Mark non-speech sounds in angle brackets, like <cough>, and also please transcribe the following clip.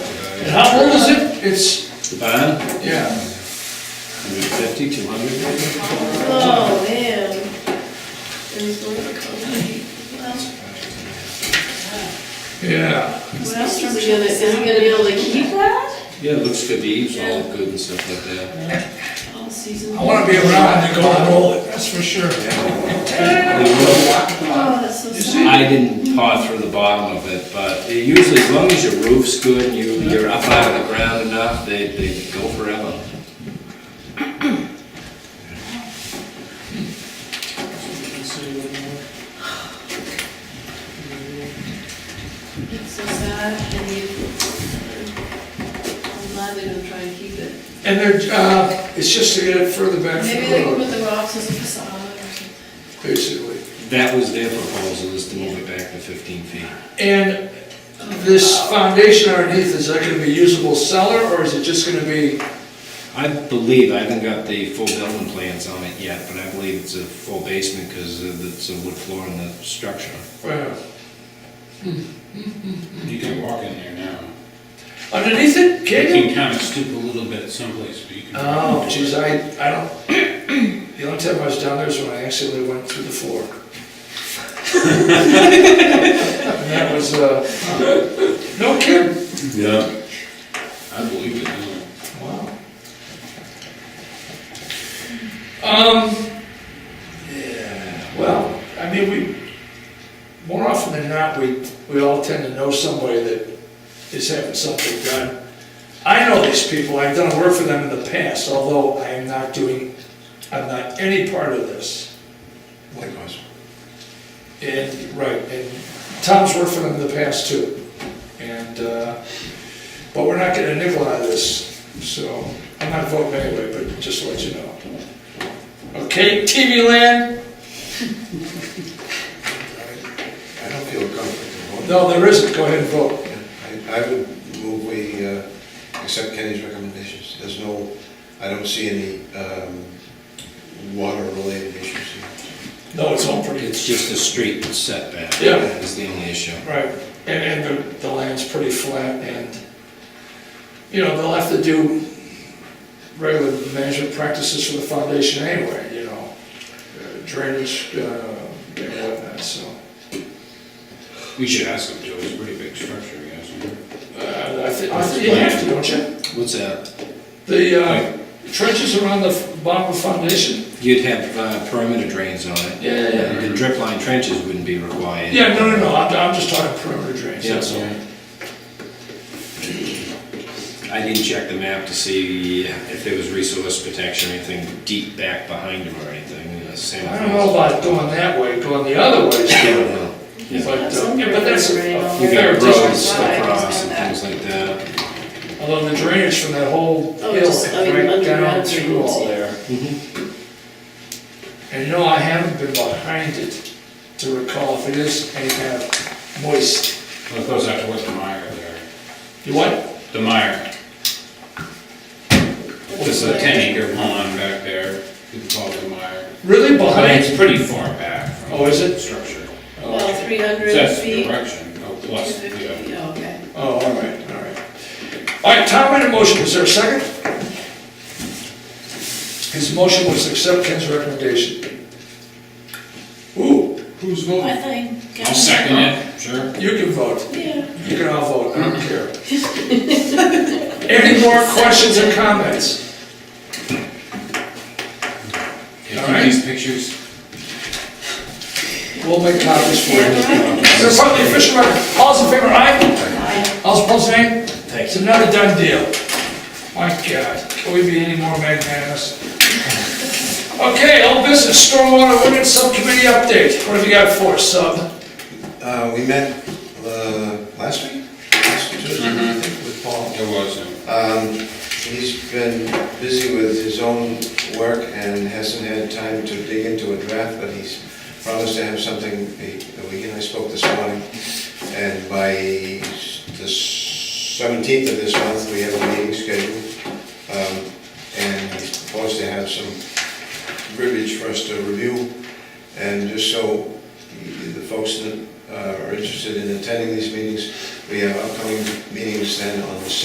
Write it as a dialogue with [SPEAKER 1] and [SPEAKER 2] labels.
[SPEAKER 1] How old is it? It's,
[SPEAKER 2] The barn,
[SPEAKER 1] yeah,
[SPEAKER 2] 150, 200 maybe?
[SPEAKER 3] Oh, man. There's one of the company.
[SPEAKER 1] yeah.
[SPEAKER 3] What else is he gonna, is he gonna be able to keep that?
[SPEAKER 2] Yeah, it looks good, the eaves are all good and stuff like that.
[SPEAKER 3] All season.
[SPEAKER 1] I wanna be around to go and roll it, that's for sure.
[SPEAKER 2] The roof,
[SPEAKER 3] Oh, that's so sad.
[SPEAKER 2] I didn't paw through the bottom of it, but it usually, as long as your roof's good and you, you're up out of the ground enough, they, they go forever.
[SPEAKER 3] It's so sad, and you, I'm glad they don't try and keep it.
[SPEAKER 1] And they're, uh, it's just to get it further back
[SPEAKER 3] Maybe
[SPEAKER 1] from
[SPEAKER 3] they can
[SPEAKER 1] the
[SPEAKER 3] put
[SPEAKER 1] road,
[SPEAKER 3] the rocks as a facade or something.
[SPEAKER 1] basically.
[SPEAKER 2] That was their proposal, is to move it back to 15 feet.
[SPEAKER 1] And this foundation underneath, is that gonna be usable cellar, or is it just gonna be,
[SPEAKER 2] I believe, I haven't got the full building plans on it yet, but I believe it's a full basement because it's a wood floor in the structure.
[SPEAKER 1] uh,
[SPEAKER 4] You can walk in there now.
[SPEAKER 1] underneath it,
[SPEAKER 4] You
[SPEAKER 1] can you?
[SPEAKER 4] can kind of stoop a little bit someplace, but you can.
[SPEAKER 1] Oh, jeez, I, I don't, <clears throat> the only time I was down there is when I accidentally went through the floor. <laughs> And that was, uh, no kidding.
[SPEAKER 4] Yeah. I believe it, yeah.
[SPEAKER 1] Wow. Um, yeah, well, I mean, we, more often than not, we, we all tend to know somebody that is having something done. I know these people, I've done work for them in the past, although I am not doing, I'm not any part of this. Likewise. And, right, and Tom's worked for them in the past too. And, uh, but we're not getting a nickel out of this, so I'm not voting anyway, but just to let you know. Okay, TV land?
[SPEAKER 5] I don't feel comfortable.
[SPEAKER 1] No, there isn't, go ahead and vote.
[SPEAKER 5] I I would move we uh, accept Kenny's recommendations. There's no, I don't see any um, water-related issues here.
[SPEAKER 1] No, it's all pretty,
[SPEAKER 2] It's just a street setback.
[SPEAKER 1] Yeah.
[SPEAKER 2] Is the only issue.
[SPEAKER 1] right, and, and the, the land's pretty flat and, you know, they'll have to do regular management practices for the foundation anyway, you know, uh, drainage, uh, and whatnot, so.
[SPEAKER 4] We should ask them, Joe, it's a pretty big structure, you guys.
[SPEAKER 1] Uh, I think, I think you have to, don't you?
[SPEAKER 2] What's that?
[SPEAKER 1] The uh, trenches around the f- bottom of the foundation?
[SPEAKER 2] You'd have uh, perimeter drains on it.
[SPEAKER 1] Yeah, yeah,
[SPEAKER 2] The drip line trenches wouldn't be required.
[SPEAKER 1] Yeah, no, no, no, I'm, I'm just talking perimeter drains,
[SPEAKER 2] Yeah,
[SPEAKER 1] that's
[SPEAKER 2] so.
[SPEAKER 1] all.
[SPEAKER 2] I didn't check the map to see if there was resource protection or anything deep back behind them or anything, you know, same.
[SPEAKER 1] I don't know about going that way, going the other way,
[SPEAKER 2] Yeah,
[SPEAKER 1] so-
[SPEAKER 2] well,
[SPEAKER 1] but,
[SPEAKER 2] yeah.
[SPEAKER 1] uh, yeah, but that's a a
[SPEAKER 2] You
[SPEAKER 1] fair
[SPEAKER 2] got roads
[SPEAKER 1] distance.
[SPEAKER 2] across and things like that.
[SPEAKER 1] Although the drainage from that whole
[SPEAKER 3] Oh,
[SPEAKER 1] hill,
[SPEAKER 3] just, I mean,
[SPEAKER 1] right down
[SPEAKER 3] underground
[SPEAKER 1] through
[SPEAKER 3] drains,
[SPEAKER 1] all
[SPEAKER 3] yeah.
[SPEAKER 1] there. And you know, I haven't been behind it to recall if it is any kind of moist.
[SPEAKER 4] Well, it goes out towards the mire there.
[SPEAKER 1] You what?
[SPEAKER 4] The mire. There's a ten acre pond back there, you can call it the mire.
[SPEAKER 1] Really
[SPEAKER 4] But
[SPEAKER 1] behind?
[SPEAKER 4] it's pretty far back from.
[SPEAKER 1] Oh, is it?
[SPEAKER 4] the Structure.
[SPEAKER 1] Oh,
[SPEAKER 3] Well, three
[SPEAKER 4] So
[SPEAKER 3] hundred
[SPEAKER 4] That's the
[SPEAKER 3] feet, two
[SPEAKER 4] direction, oh, plus, yeah.
[SPEAKER 3] fifty, oh, okay.
[SPEAKER 1] Oh, all right, all right. All right, Tom made a motion, is there a second? His motion was to accept Ken's recommendation. Ooh, who's
[SPEAKER 3] I
[SPEAKER 1] voting?
[SPEAKER 3] think.
[SPEAKER 4] I'll second it, sure.
[SPEAKER 1] You can vote,
[SPEAKER 3] Yeah.
[SPEAKER 1] you can all vote, I don't care. Any more questions or comments?
[SPEAKER 4] Can
[SPEAKER 1] All
[SPEAKER 4] you do
[SPEAKER 1] right.
[SPEAKER 4] these pictures?
[SPEAKER 1] We'll make copies for you. They're part of the official record, all's in favor, aye? All's opposed, nay? It's another done deal. My God, can we be any more magnanimous? Okay, old business, stormwater ordinance subcommittee update. What have you got for us, sub?
[SPEAKER 5] Uh, We met uh, last week, last Tuesday, I think, with Paul.
[SPEAKER 4] It wasn't.
[SPEAKER 5] Um, He's been busy with his own work and hasn't had time to dig into a draft, but he's promised to have something, he- we, and I spoke this morning, and by the seventeenth of this month, we have a meeting scheduled. Um, And he's proposed to have some verbiage for us to review, and just so the folks that uh, are interested in attending these meetings, we have upcoming meetings then on the